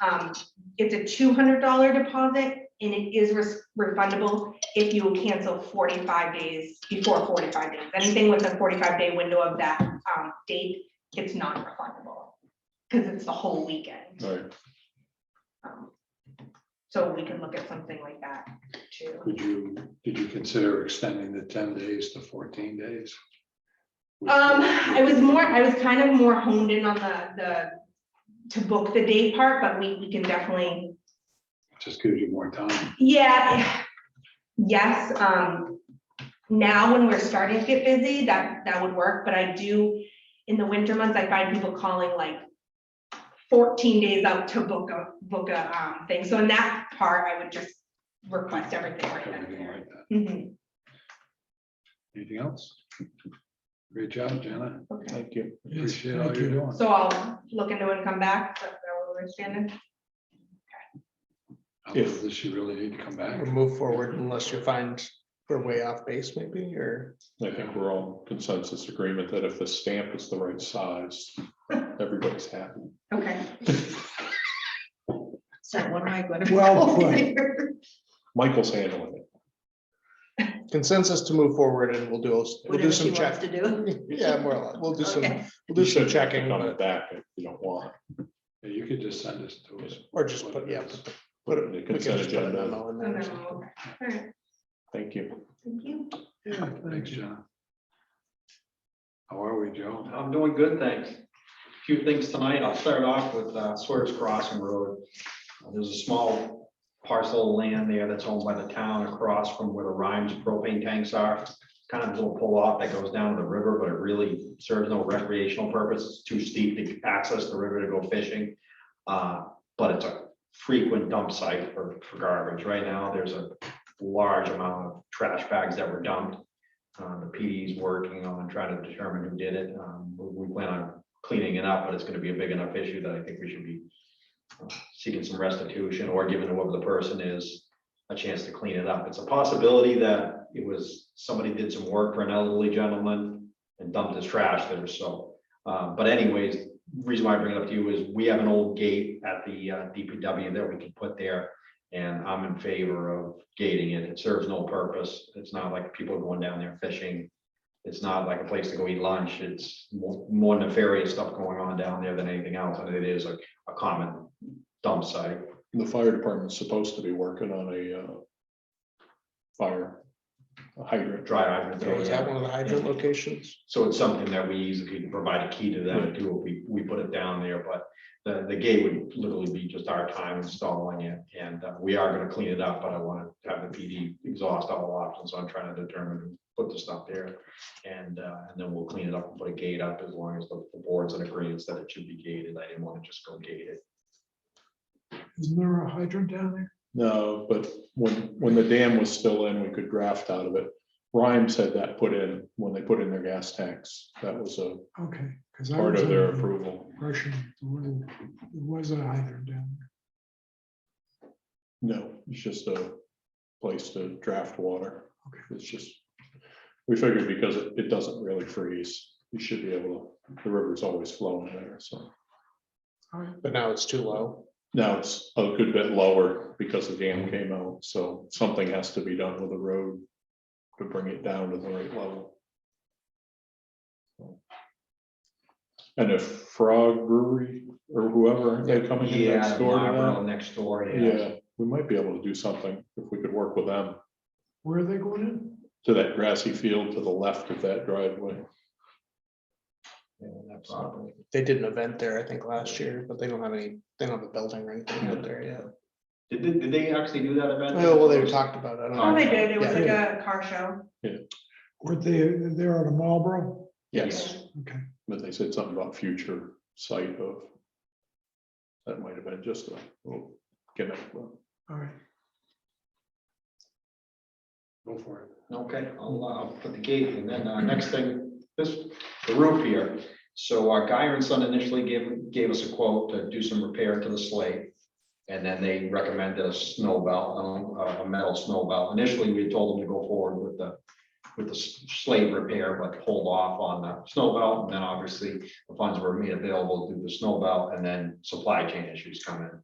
Um, it's a two hundred dollar deposit and it is res- refundable if you cancel forty-five days before forty-five days. Anything with a forty-five day window of that, um, date, it's not refundable. Cause it's the whole weekend. Right, Um, So we can look at something like that too. could you, did you consider extending the ten days to fourteen days? Um, I was more, I was kind of more honed in on the, the, to book the date part, but we, we can definitely Just gives you more time. Yeah, yes, um, now when we're starting to get busy, that, that would work, but I do, in the winter months, I find people calling like fourteen days out to book a, book a, um, thing, so in that part, I would just request everything right then and Everything there. like that. Mhm, Anything else? Great job, Jenna. okay. Thank you. Appreciate all you're doing. So I'll look into it and come back, but we're standing, How does she really need to come back? or move forward unless you find we're way off base maybe, or I think we're all consensus agreement that if the stamp is the right size, everybody's happy. okay. So what am I going to? Well put. Michael's handling it. consensus to move forward and we'll do, we'll do Whatever she some wants to check. do. Yeah, more or less, we'll do some, Okay. we'll You do some should checking, On the but- back if you don't want. Yeah, You could just send us to us. or just put, yeah. put- Put it, in the we can consent just put a agenda. memo in No, no, there. or okay. something. All right, Thank you. Thank you. Yeah, thanks, Jenna. How are we, Joe? I'm doing good, thanks. A Few things tonight. I'll start off with uh, Swears Crossing Road. Uh, There's a small parcel of land there that's owned by the town across from where the Rhymes propane tanks are. Kind of a little pull-off that goes down to the river, but it really serves no recreational purpose. It's too steep to access the river to go fishing. Uh, But it's a frequent dump site for for garbage. Right now, there's a large amount of trash bags that were dumped. Uh, the PD's working on trying to determine who did it. Um, we we plan on cleaning it up, but it's gonna be a big enough issue that I think we should be uh, seeking some restitution or giving whoever the person is a chance to clean it up. It's a possibility that it was, somebody did some work for an elderly gentleman and dumped his trash there, so. Uh, but anyways, reason why I bring it up to you is we have an old gate at the uh, DPW that we can put there. And I'm in favor of gating it. It serves no purpose. It's not like people going down there fishing. It's not like a place to go eat lunch. It's more more nefarious stuff going on down there than anything else, and it is a, a common dump site. The fire department's supposed to be working on a uh, fire hydrant. Dry hydrant. Yeah, there, Is yeah. that one of the hydrant locations? So it's something that we easily could provide a key to them too, if we, we put it down there, but the, the gate would literally be just our time installing it. And uh, we are gonna clean it up, but I want to have the PD exhaust all options, so I'm trying to determine, who put the stuff there. And, uh, and then we'll clean it up and put a gate up as long as the the board's in agreement that it should be gated. I didn't want to just go gate it. Isn't there a hydrant down there? No, but when, when the dam was still in, we could draft out of it. Rhymes had that put in when they put in their gas tanks. That was a Okay, because I part was of their under the approval. impression there was- there was a hydrant down there. No, it's just a place to draft water. Okay. It's just, we figured because it, it doesn't really freeze, you should be able, to. the river's always flowing there, so. But now it's too low. Now it's a good bit lower because the dam came out, so something has to be done with the road to bring it down to the right level. And if Frog Brewery or whoever, aren't they coming in next Yeah, door to Marlboro that? next door, yeah. Yeah, we might be able to do something if we could work with them Where are they going in? to that grassy field to the left of that driveway. Yeah, that property. They did an event there, I think, last year, but they don't have any, they don't have a building or anything up there yet. Did, did- did they actually do that event? Oh, well, they talked about it. I don't Oh, know. they did, it was Yeah. like a car show. Weren't they, they're out of Marlboro? Yes, Okay, but they said something about future site of. That might have been just a little gimmick, but. all right. Go for it. Okay, I'll, uh, I'll put the gate and then, uh, next thing, this, the roof here. So our Guyer and Son initially gave, gave us a quote to do some repair to the slate. And then they recommended a snow belt, um, a, a metal snow belt. Initially, we told them to go forward with the, with the s- slate repair, but hold off on the snow belt. And then obviously the funds were made available through the snow belt and then supply chain issues come in.